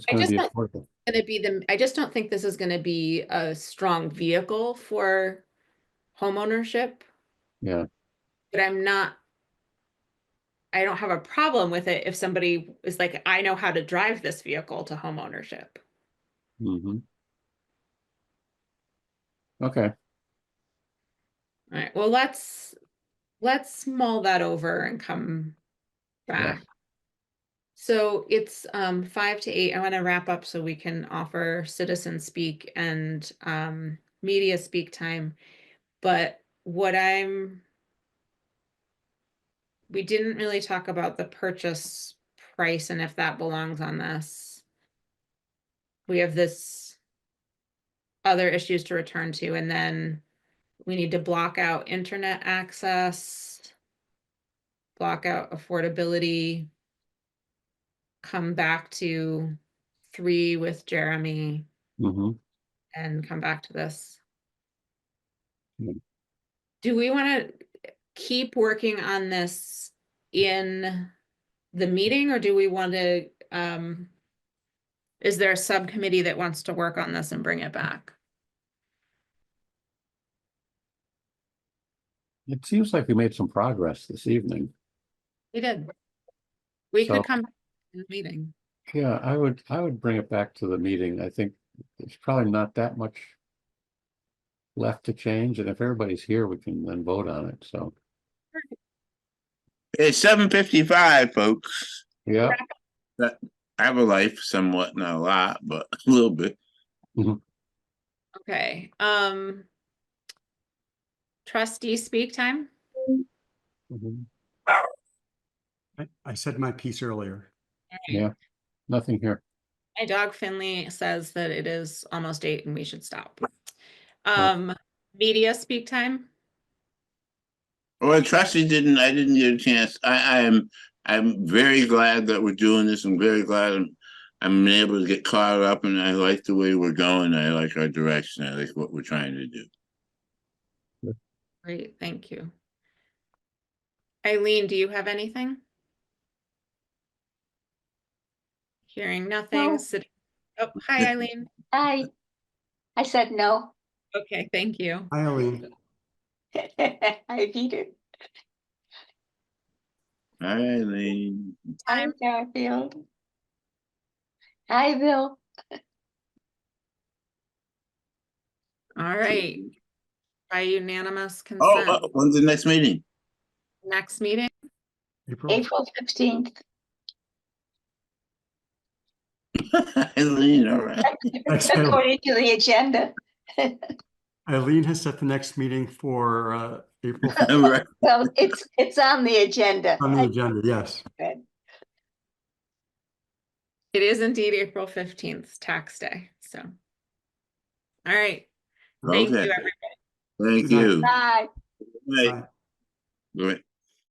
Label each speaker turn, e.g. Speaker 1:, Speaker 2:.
Speaker 1: It's
Speaker 2: I
Speaker 1: gonna
Speaker 2: just
Speaker 1: be
Speaker 2: thought-
Speaker 1: affordable.
Speaker 2: gonna be the, I just don't think this is gonna be a strong vehicle for homeownership,
Speaker 1: Yeah,
Speaker 2: but I'm not. I don't have a problem with it if somebody is like, I know how to drive this vehicle to homeownership.
Speaker 1: hmm Okay,
Speaker 2: Alright, well, let's, let's mull that over and come
Speaker 1: Yeah.
Speaker 2: back. So it's um five to eight. I wanna wrap up so we can offer citizen speak and um media speak time. But what I'm. We didn't really talk about the purchase price and if that belongs on this. We have this. Other issues to return to and then we need to block out internet access. Block out affordability. Come back to three with Jeremy
Speaker 1: hmm
Speaker 2: and come back to this.
Speaker 1: Yeah.
Speaker 2: Do we want to keep working on this in the meeting or do we want to, um, is there a subcommittee that wants to work on this and bring it back?
Speaker 1: It seems like we made some progress this evening.
Speaker 2: We did. We
Speaker 1: So-
Speaker 2: could come back in the meeting.
Speaker 1: Yeah, I would, I would bring it back to the meeting. I think there's probably not that much left to change, and if everybody's here, we can then vote on it, so,
Speaker 3: It's seven fifty-five, folks.
Speaker 1: yeah.
Speaker 3: I have a life somewhat, not a lot, but a little bit.
Speaker 2: Okay, um. Trustee speak time?
Speaker 1: Mhm.
Speaker 4: I, I said my piece earlier.
Speaker 1: Yeah. Nothing here.
Speaker 2: My dog Finley says that it is almost eight and we should stop. Um, media speak time?
Speaker 3: Well, trustee didn't, I didn't get a chance. I, I am, I'm very glad that we're doing this. I'm very glad I'm, I'm able to get caught up and I like the way we're going. I like our direction. I like what we're trying to do.
Speaker 2: Great, thank you. Eileen, do you have anything? Hearing nothing,
Speaker 5: No.
Speaker 2: sit, oh, hi Eileen,
Speaker 5: I, I said no.
Speaker 2: okay, thank you.
Speaker 4: Hi, Eileen.
Speaker 5: I beat it.
Speaker 3: All right, Lee.
Speaker 5: Hi,
Speaker 2: Time.
Speaker 5: Garfield. Hi, Bill.
Speaker 2: All right, by unanimous
Speaker 3: Oh,
Speaker 2: consent,
Speaker 3: oh, when's the next meeting?
Speaker 2: next meeting?
Speaker 4: April,
Speaker 5: April fifteenth.
Speaker 3: Eileen, all right.
Speaker 4: Thanks, Bill.
Speaker 5: According to the agenda.
Speaker 4: Eileen has set the next meeting for uh, April
Speaker 3: All right.
Speaker 5: Well, it's, it's on the agenda.
Speaker 4: on the agenda, yes.
Speaker 2: It is indeed April fifteenth, tax day, so. All right, thank you,
Speaker 3: Okay.
Speaker 2: everyone.
Speaker 3: Thank you.
Speaker 5: Bye.
Speaker 3: Right. Right.